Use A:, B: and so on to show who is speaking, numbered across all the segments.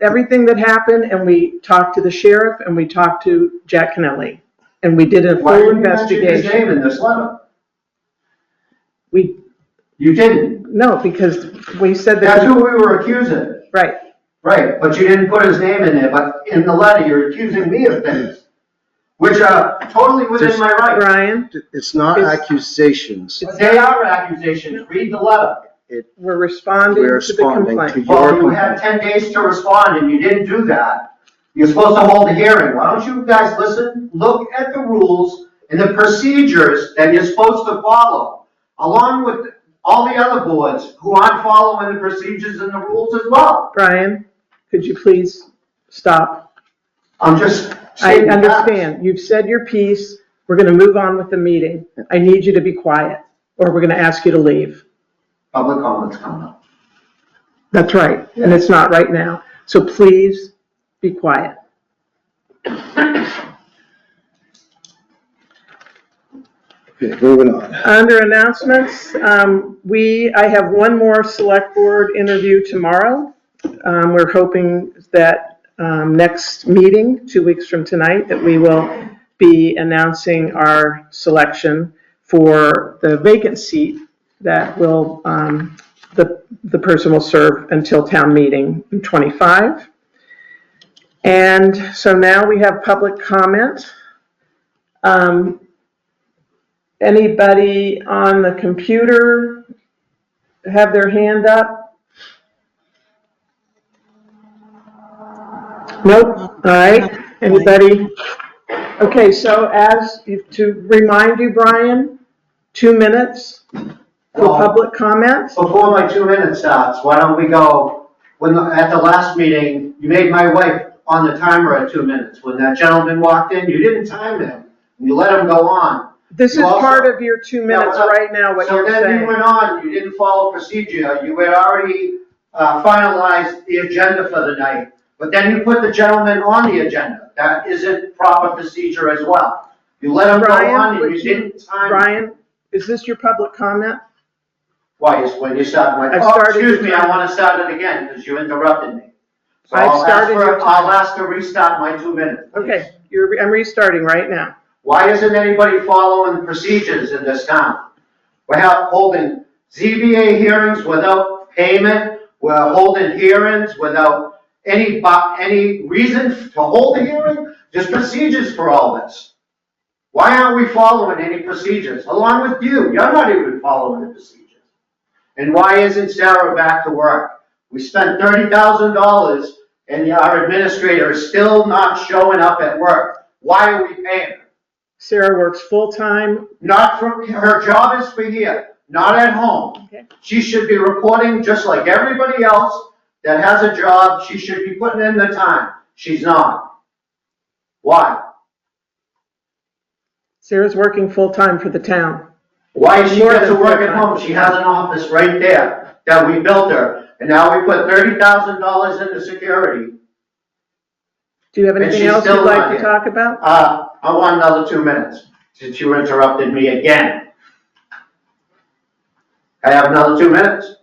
A: everything that happened and we talked to the sheriff and we talked to Jack Kennelly. And we did a
B: Why
A: full
B: didn't you mention his
A: investigation.
B: name in this letter?
A: We,
B: You didn't.
A: no, because we said
B: That's who
A: that,
B: we were accusing.
A: right.
B: Right, but you didn't put his name in there, but in the letter, you're accusing me of things, which are totally within my right.
A: Ryan,
C: It's not
A: It's-
C: accusations.
B: They are accusations, read the letter.
A: we're responding
C: We're
A: to the
C: responding to
A: complaint.
C: your
B: Well, you had
C: complaint.
B: ten days to respond and you didn't do that. You're supposed to hold a hearing. Why don't you guys listen, look at the rules and the procedures that you're supposed to follow, along with all the other boards who aren't following the procedures and the rules as well.
A: Brian, could you please stop?
B: I'm just
A: I
B: stating facts.
A: understand. You've said your piece. We're gonna move on with the meeting. I need you to be quiet or we're gonna ask you to leave.
B: Public comments coming up.
A: That's right, and it's not right now. So please be quiet.
C: Okay, moving on.
A: Under announcements, um, we, I have one more select board interview tomorrow. Um, we're hoping that, um, next meeting, two weeks from tonight, that we will be announcing our selection for the vacant seat that will, um, the, the person will serve until town meeting in twenty-five. And so now we have public comment. Um, Anybody on the computer have their hand up? Nope, all right, anybody? Okay, so as, to remind you, Brian, two minutes for
B: Well-
A: public comments.
B: Before my two minutes starts, why don't we go, when, the- at the last meeting, you made my wife on the timer at two minutes. When that gentleman walked in, you didn't time him, and you let him go on.
A: This is
B: You also-
A: part of your two minutes
B: Yeah, well,
A: right now, what you're
B: So then you
A: saying.
B: went on, you didn't follow procedure, you had already uh, finalized the agenda for the night, but then you put the gentleman on the agenda. That isn't proper procedure as well. You let him go
A: Brian,
B: on and
A: would
B: you
A: you-
B: didn't time.
A: Brian, is this your public comment?
B: Why, is when you started,
A: I
B: went, oh,
A: started
B: excuse
A: your
B: me, I
A: time.
B: wanna start it again, because you interrupted me. So
A: I
B: I'll ask
A: started
B: for,
A: your
B: I'll ask to restart my two minutes. please.
A: Okay, you're, I'm restarting right now.
B: Why isn't anybody following the procedures in this town? We're ha- holding ZBA hearings without payment, we're holding hearings without any, bu- any reason to hold a hearing, there's procedures for all this. Why aren't we following any procedures, along with you, you're not even following the procedures. And why isn't Sarah back to work? We spent thirty thousand dollars and our administrator is still not showing up at work, why are we paying her?
A: Sarah works full-time.
B: Not from, her job is for here, not at home.
A: Okay.
B: She should be reporting just like everybody else that has a job, she should be putting in the time. She's not. Why?
A: Sarah's working full-time for the town.
B: Why does she
A: More
B: get to
A: than
B: work at
A: full-time.
B: home? She has an office right there that we built her. And now we put thirty thousand dollars into security.
A: Do you have
B: And
A: anything
B: she's
A: else you'd
B: still
A: like
B: not
A: to
B: here.
A: talk about?
B: Uh, I want another two minutes, since you interrupted me again. I have another two minutes.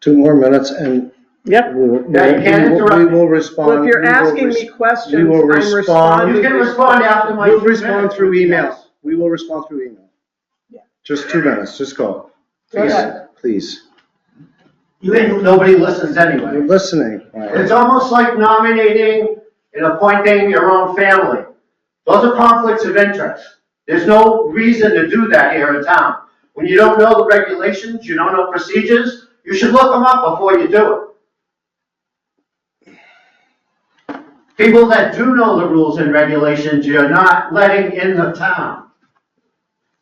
C: Two more minutes and
A: Yep.
C: we will, we
B: Yeah, you can't
C: will- we
B: interrupt me.
C: will respond.
A: Well, if you're
C: we will
A: asking
C: res-
A: me questions,
C: we will
A: I'm
C: respond.
A: responding.
B: You can respond after my.
C: We'll
B: two
C: respond
B: minutes.
C: through email. We will respond through email. Just two minutes, just go. Please,
B: Okay.
C: please.
B: You ain't, nobody listens
C: You're
B: anyway.
C: listening. Ryan.
B: It's almost like nominating and appointing your own family. Those are conflicts of interest. There's no reason to do that here in town. When you don't know the regulations, you don't know procedures, you should look them up before you do it. People that do know the rules and regulations, you're not letting in the town.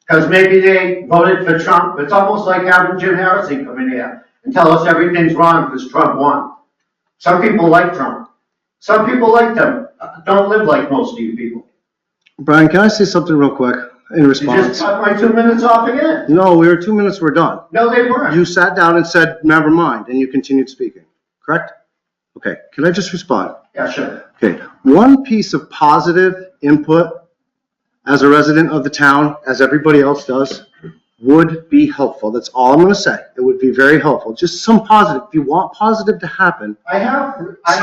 B: Because maybe they voted for Trump, it's almost like having Jim Harrison come in here and tell us everything's wrong because Trump won. Some people like Trump. Some people like them, don't live like most of you people.
C: Brian, can I say something real quick in
B: You just
C: response?
B: cut my two minutes off again.
C: No, we were two minutes, we're done.
B: No, they weren't.
C: You sat down and said, never mind, and you continued speaking, correct? Okay, can I just respond?
B: Yeah, sure.
C: Okay, one piece of positive input as a resident of the town, as everybody else does, would be helpful. That's all I'm gonna say. It would be very helpful. Just some positive. If you want positive to happen,
B: I have, I